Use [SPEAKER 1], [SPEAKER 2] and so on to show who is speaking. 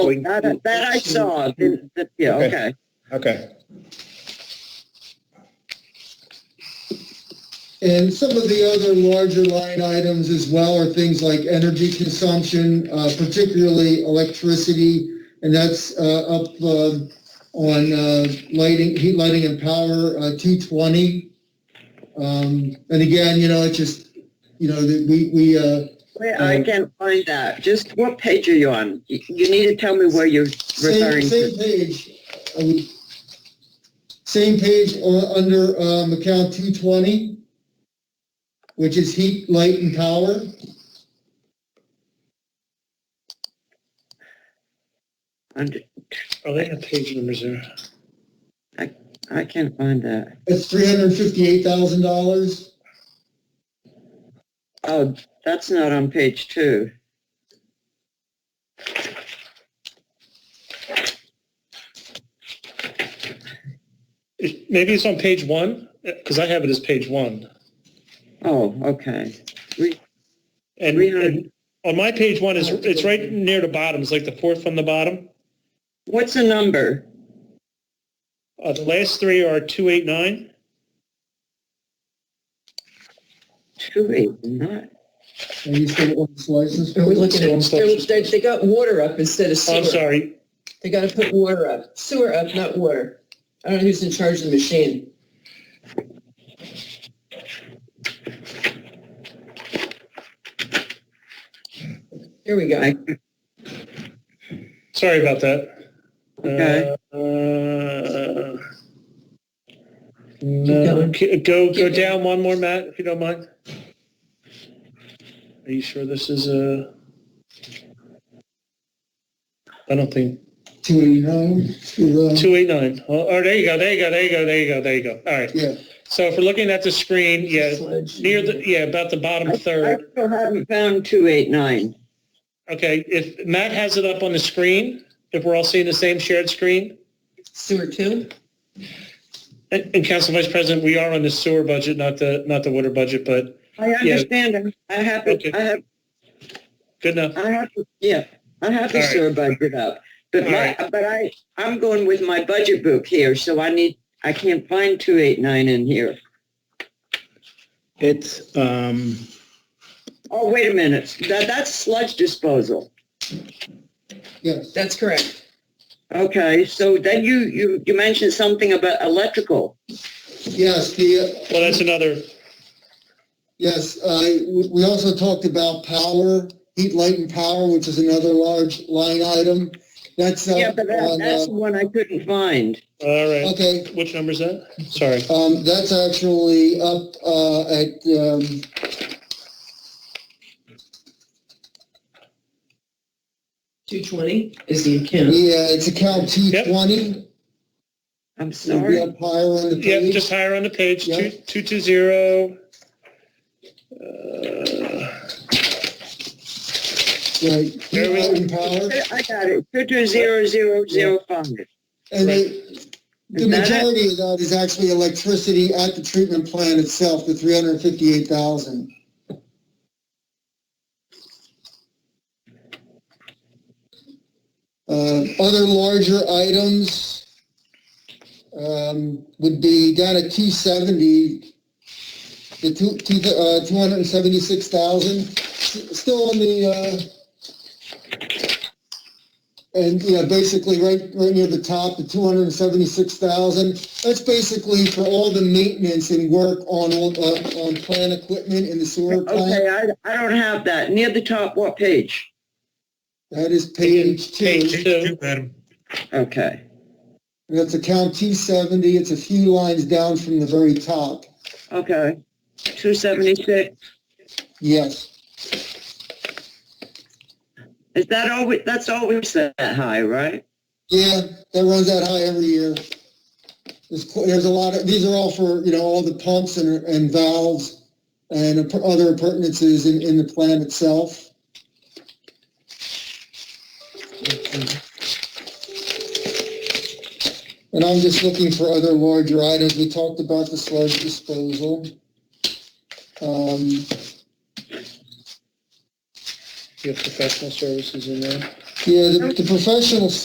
[SPEAKER 1] Going
[SPEAKER 2] That, I- that I saw, didn't, that- yeah,
[SPEAKER 1] Okay.
[SPEAKER 2] okay.
[SPEAKER 1] Okay.
[SPEAKER 3] And some of the other larger line items as well are things like energy consumption, uh, particularly electricity. And that's, uh, up, uh, on, uh, lighting, heat, lighting and power, uh, two twenty. Um, and again, you know, it just, you know, that we, we, uh,
[SPEAKER 2] Wait, I
[SPEAKER 3] Um,
[SPEAKER 2] can't find that. Just what page are you on? You you need to tell me where you're
[SPEAKER 3] same,
[SPEAKER 2] referring to.
[SPEAKER 3] same page. I would- Same page, uh, under, um, account two twenty, which is heat, light and power.
[SPEAKER 2] Under-
[SPEAKER 4] Are they at page numbers there?
[SPEAKER 2] I can't find that.
[SPEAKER 3] That's three hundred and fifty-eight thousand dollars.
[SPEAKER 2] Oh, that's not on page two.
[SPEAKER 4] It- Maybe it's on page one, because I have it as page one.
[SPEAKER 2] Oh, okay.
[SPEAKER 4] And,
[SPEAKER 2] Three hundred-
[SPEAKER 4] and on my page one is, it's right near the bottom, it's like the fourth from the bottom.
[SPEAKER 2] What's the number?
[SPEAKER 4] Uh, the last three are two eight nine.
[SPEAKER 2] Two eight nine.
[SPEAKER 3] Are you still on this license?
[SPEAKER 5] Are we looking
[SPEAKER 4] One
[SPEAKER 5] at, they,
[SPEAKER 4] section.
[SPEAKER 5] they- they got water up instead of
[SPEAKER 4] Oh, I'm
[SPEAKER 5] sewer.
[SPEAKER 4] sorry.
[SPEAKER 5] They gotta put water up, sewer up, not water. I don't know who's in charge of the machine. Here we go.
[SPEAKER 2] I-
[SPEAKER 4] Sorry about that.
[SPEAKER 2] Okay.
[SPEAKER 4] Uh, uh, No, ca- go, go down one more, Matt, if you don't mind. Are you sure this is a? I don't think,
[SPEAKER 3] Two eighty-nine, two, uh,
[SPEAKER 4] two eight nine. Oh, oh, there you go, there you go, there you go, there you go, there you go. All right.
[SPEAKER 3] yeah.
[SPEAKER 4] So if we're looking at the screen, yeah,
[SPEAKER 5] Sludge.
[SPEAKER 4] near the, yeah, about the bottom
[SPEAKER 2] I
[SPEAKER 4] third.
[SPEAKER 2] still haven't found two eight nine.
[SPEAKER 4] Okay, if Matt has it up on the screen, if we're all seeing the same shared screen.
[SPEAKER 5] Sewer two?
[SPEAKER 4] And and Council Vice President, we are on the sewer budget, not the, not the water budget, but
[SPEAKER 2] I understand. I have,
[SPEAKER 4] Okay.
[SPEAKER 2] it- I have
[SPEAKER 4] good enough.
[SPEAKER 2] I have to, yeah, I have
[SPEAKER 4] All
[SPEAKER 2] to
[SPEAKER 4] right.
[SPEAKER 2] sort of budget up. But
[SPEAKER 4] All
[SPEAKER 2] my, but I, I'm going with my budget book here, so I need, I can't find two eight nine in here.
[SPEAKER 6] It's, um,
[SPEAKER 2] Oh, wait a minute, that, that's sludge disposal.
[SPEAKER 3] Yes,
[SPEAKER 5] That's correct.
[SPEAKER 2] Okay, so then you, you, you mentioned something about electrical.
[SPEAKER 3] yes, the,
[SPEAKER 4] Well, that's another,
[SPEAKER 3] yes, uh, we- we also talked about power, heat, light and power, which is another large line item. That's, uh,
[SPEAKER 2] Yeah, but that,
[SPEAKER 3] on,
[SPEAKER 2] that's
[SPEAKER 3] uh,
[SPEAKER 2] the one I couldn't find.
[SPEAKER 4] all right.
[SPEAKER 3] okay,
[SPEAKER 4] Which number is that? Sorry.
[SPEAKER 3] um, that's actually up, uh, at, um,
[SPEAKER 5] Two twenty is the account.
[SPEAKER 3] yeah, it's account two twenty.
[SPEAKER 2] I'm
[SPEAKER 3] It'll be
[SPEAKER 2] sorry.
[SPEAKER 3] up higher on the
[SPEAKER 4] Yeah,
[SPEAKER 3] page.
[SPEAKER 4] just higher on the page,
[SPEAKER 3] Yeah.
[SPEAKER 4] two, two two zero. Uh,
[SPEAKER 3] Right, heat,
[SPEAKER 4] There we-
[SPEAKER 3] light and power.
[SPEAKER 2] I got it, two two zero zero zero five.
[SPEAKER 3] And
[SPEAKER 4] Right.
[SPEAKER 3] the, the
[SPEAKER 2] Is that it?
[SPEAKER 3] majority of that is actually electricity at the treatment plant itself, the three hundred and fifty-eight thousand. Uh, other larger items, um, would be down at two seventy, the two, two, uh, two hundred and seventy-six thousand, still on the, uh, and, you know, basically right, right near the top, the two hundred and seventy-six thousand, that's basically for all the maintenance and work on, all uh, on plant equipment in the sewer plant.
[SPEAKER 2] Okay, I, I don't have that, near the top, what page?
[SPEAKER 3] That is page
[SPEAKER 4] Page
[SPEAKER 3] two,
[SPEAKER 4] two,
[SPEAKER 2] Okay,
[SPEAKER 3] that's account two seventy, it's a few lines down from the very top,
[SPEAKER 2] okay, two seventy-six,
[SPEAKER 3] yes.
[SPEAKER 2] is that always, that's always that high, right?
[SPEAKER 3] Yeah, that runs that high every year. There's, qu- there's a lot of, these are all for, you know, all the pumps and, and valves and app- other appurtenances in, in the plant itself. And I'm just looking for other larger items. We talked about the sludge disposal. Um,
[SPEAKER 4] you have professional services in there.
[SPEAKER 3] Yeah, the, the professional